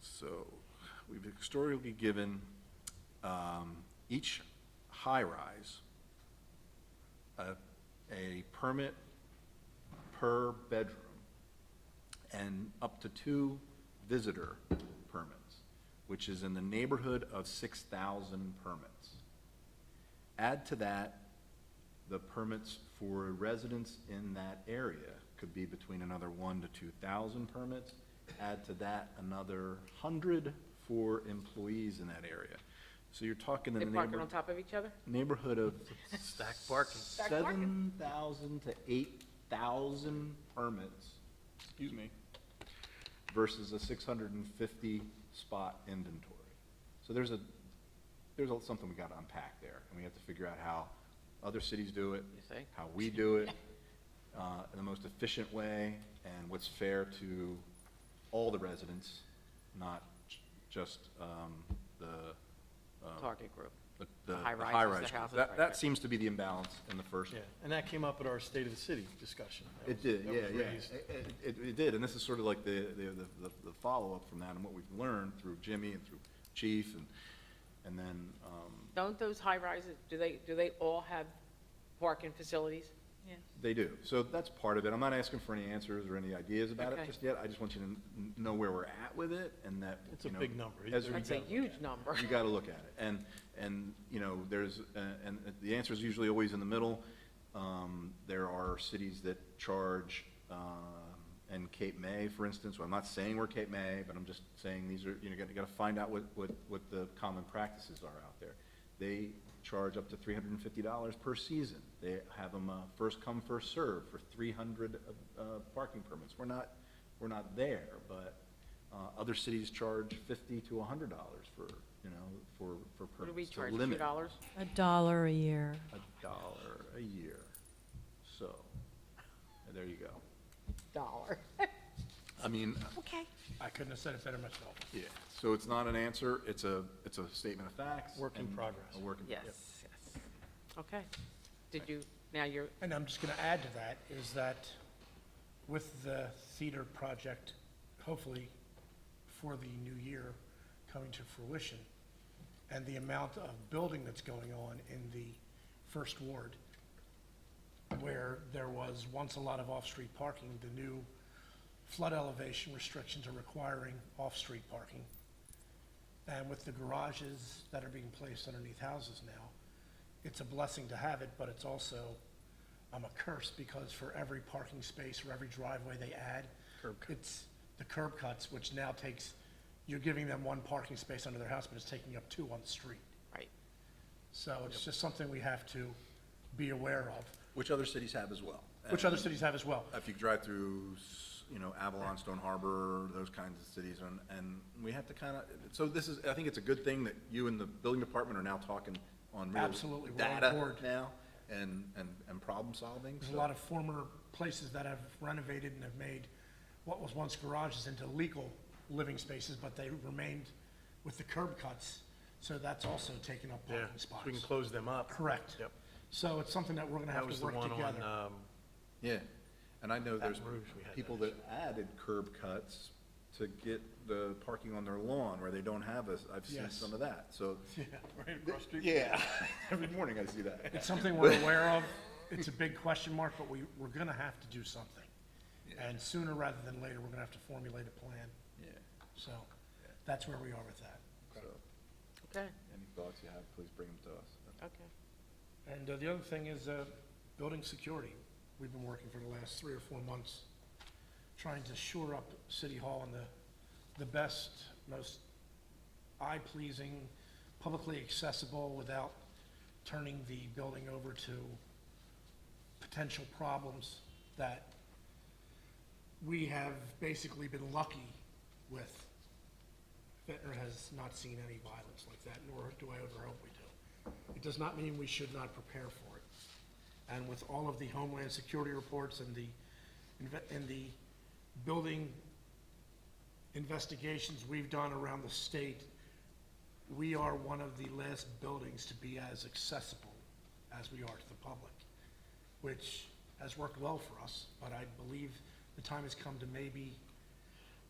So we've historically given um, each high-rise a, a permit per bedroom and up to two visitor permits, which is in the neighborhood of 6,000 permits. Add to that, the permits for residents in that area could be between another one to two thousand permits. Add to that another hundred for employees in that area. So you're talking in They the parking neighbor, on top of each other? neighborhood of Stack parking. seven thousand to eight thousand permits, excuse me, versus a six hundred and fifty spot inventory. So there's a, there's a- something we gotta unpack there, and we have to figure out how other cities do it. You think? How we do it, uh, in the most efficient way, and what's fair to all the residents, not j- just, um, the, Target group. the, the high high rises, rise. the ones. houses, That, right, that right. seems to be the imbalance in the first. Yeah, and that came up at our State of the City discussion. That It was- did, that yeah, was yeah. raised. It, it- it, it did, and this is sort of like the, the, the- the, the follow-up from that and what we've learned through Jimmy and through Chief and, and then, um, Don't those high rises, do they, do they all have parking facilities? they do. So that's part of it. I'm not asking for any answers or any ideas about it Okay. just yet. I just want you to n- know where we're at with it and that, It's a you know. big number. As we That's a huge number. You gotta look at it, and, and, you know, there's, uh, and the answer is usually always in the middle. Um, there are cities that charge, um, and Cape May, for instance, well, I'm not saying we're Cape May, but I'm just saying these are, you know, you gotta, gotta find out what, what, what the common practices are out there. They charge up to three hundred and fifty dollars per season. They have them, uh, first come, first serve for three hundred, uh, parking permits. We're not, we're not there, but, uh, other cities charge fifty to a hundred dollars for, you know, for, for What permits. do we to charge, two limit dollars? A dollar a year. A dollar a year. So, there you go. Dollar. I mean, I couldn't have said it better myself. yeah, so it's not an answer, it's a, it's a statement of facts. Work in and progress. A work in Yes, progress. yes. Okay. Did you, now you're, And I'm just going to add to that is that with the theater project, hopefully for the new year coming to fruition, and the amount of building that's going on in the first ward, where there was once a lot of off-street parking, the new flood elevation restrictions are requiring off-street parking. And with the garages that are being placed underneath houses now, it's a blessing to have it, but it's also um, a curse because for every parking space or every driveway they add, it's the curb cuts, which now takes, you're giving them one parking space under their house, but it's taking up two on the street. right. So it's just something we have to be aware of, Which other cities have as well. which other cities have as well. If you drive through, s- you know, Avalon, Stone Harbor, those kinds of cities, and, and we have to kind of, so this is, I think it's a good thing that you and the building department are now talking on real Absolutely, we're on data board. now and, and, and problem solving. There's a so- lot of former places that have renovated and have made what was once garages into legal living spaces, but they remained with the curb cuts, so that's also taken up Yeah, parking so we can spots. close them up. Correct. Yep. So it's something that we're gonna That have was to the work one on, together. um, Yeah, and I know there's Rouge, we had that people that added curb cuts to get the parking on their lawn where they don't have a, I've seen Yes. some of that, so. Yeah, right across the street. Yeah, every morning I see It's that. something we're aware of. It's a big question mark, but we, we're gonna have to do something. And sooner rather than later, we're gonna have to formulate a plan. Yeah, So that's where we are with that. so, Okay, any thoughts you have, please bring them to us. okay. And uh, the other thing is uh, building security. We've been working for the last three or four months, trying to shore up City Hall in the, the best, most eye-pleasing, publicly accessible without turning the building over to potential problems that we have basically been lucky with. Ventnor has not seen any violence like that, nor do I ever hope we do. It does not mean we should not prepare for it. And with all of the Homeland Security reports and the, inve- and the building investigations we've done around the state, we are one of the last buildings to be as accessible as we are to the public, which has worked well for us, but I believe the time has come to maybe